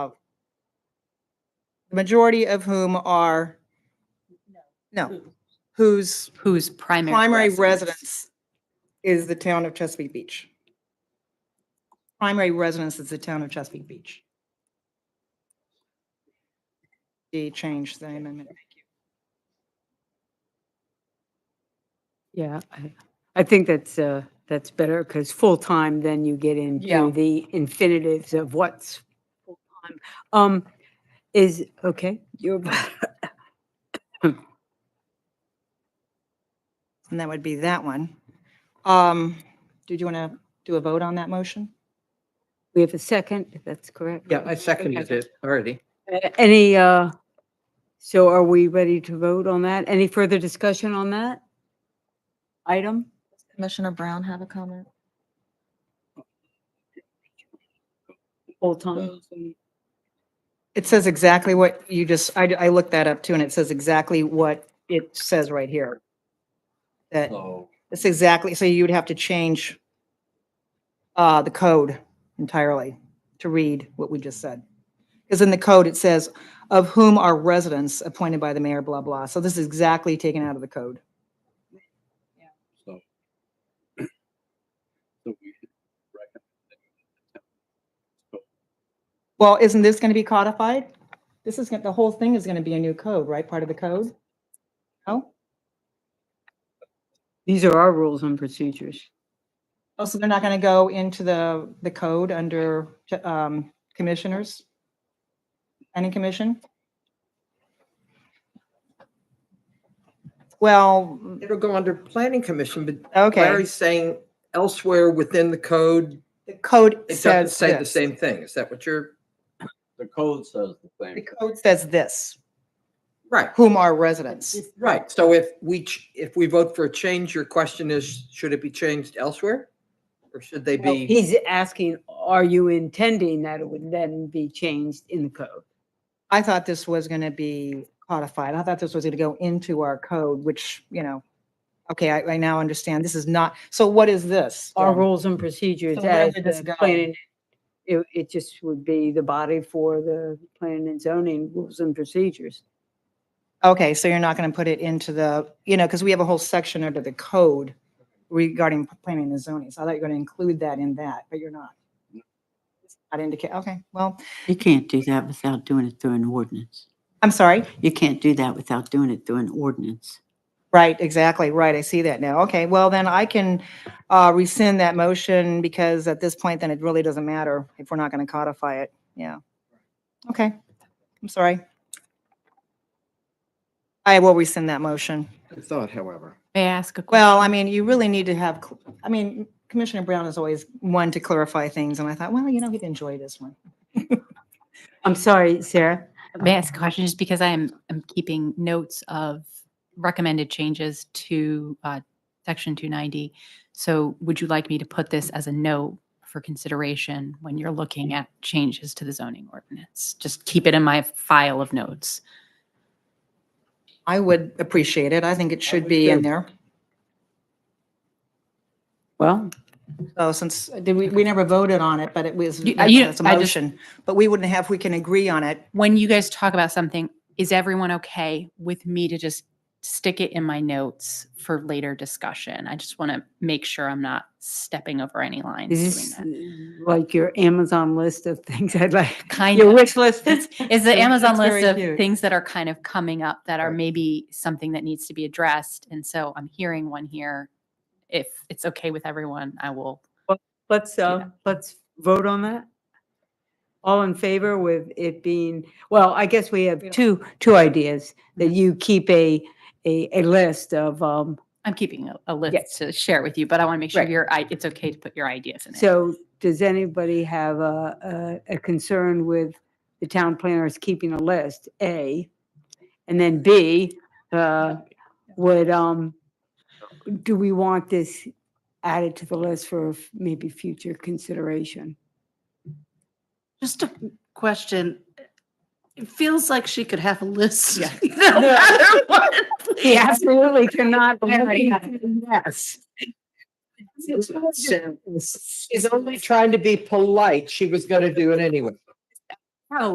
the majority of whom are, no, whose Whose primary? primary residence is the town of Chesapeake Beach. Primary residence is the town of Chesapeake Beach. The change, the amendment. Yeah, I- I think that's, uh, that's better because full-time, then you get Yeah. into the infinitives of what's full-time. Um, is, okay, you're, And that would be that one. Um, did you want to do a vote on that motion? we have a second, if that's correct? Yeah, I seconded it already. A- Any, uh, so are we ready to vote on that? Any further discussion on that item? Commissioner Brown have a comment? Full-time? It says exactly what you just, I, I looked that up too, and it says exactly what it says right here. That, So it's exactly, so you would have to change uh, the code entirely to read what we just said. Because in the code, it says, of whom are residents appointed by the mayor, blah, blah. So this is exactly taken out of the code. so- so we should recommend Well, isn't this going to be codified? This is, gonna- the whole thing is going to be a new code, right? Part of the code? No? These are our rules and procedures. Oh, so they're not going to go into the, the code under um, commissioners? Any commission? Well, it will go under planning commission, but okay, Larry's saying elsewhere within the code, the code it doesn't says say the this. same thing. Is that what you're, The code says the The same. code says this, right, whom are residents? right. So if we, ch- if we vote for a change, your question is, should it be changed elsewhere? Or should they Well, be, Oh, He's asking, are you intending that it would then be changed in the code? I thought this was going to be codified. I thought this was going to go into our code, which, you know, okay, I, I now understand. This is not, so what is this? Our then? rules and procedures So where as would this the go? planning, it, it just would be the body for the planning and zoning rules and procedures. Okay, so you're not going to put it into the, you know, because we have a whole section under the code regarding p- planning and zoning. So I thought you were going to include that in that, but you're not. Not indicate, okay, well, You can't do that without doing it through an ordinance. I'm sorry. You can't do that without doing it through an ordinance. Right, exactly, right. I see that now. Okay, well, then I can uh, rescind that motion because at this point, then it really doesn't matter if we're not going to codify it. Yeah. Okay, I'm sorry. I will rescind that motion. thought, however? May I ask a question? Well, I mean, you really need to have, cl- I mean, Commissioner Brown is always one to clarify things, and I thought, well, you know, he'd enjoy this one. I'm sorry, Sarah. May I ask a question, just because I am, am keeping notes of recommended changes to uh, section 290. So would you like me to put this as a note for consideration when you're looking at changes to the zoning ordinance? Just keep it in my file of notes. I would appreciate it. I think it should be in there. Well, So since, did we, we never voted on it, but it was, You- you- it's a I just- motion. But we wouldn't have, we can agree on it. when you guys talk about something, is everyone okay with me to just stick it in my notes for later discussion? I just want to make sure I'm not stepping over any lines. is doing this that. uh, like your Amazon list of things I'd like? Kind Your of. wish list? It's, it's the That's- Amazon that's list very of cute. things that are kind of coming up that are maybe something that needs to be addressed. And so I'm hearing one here. If it's okay with everyone, I will. Let's, uh, let's vote on that. All in favor with it being, well, I guess we have two, two ideas, that Mm-hmm. you keep a, a, a list of, um, I'm keeping a, a Yes. list to share with you, but I want to make sure Right. your I it's okay to put your ideas in it. so does anybody have a, a, a concern with the town planners keeping a list, A? And then B, uh, would, um, do we want this added to the list for f- maybe future consideration? Just a question. It feels like she could have a list. Yeah. no matter what. He absolutely cannot. Yes. She's only trying to be polite. She was going to do it anyway.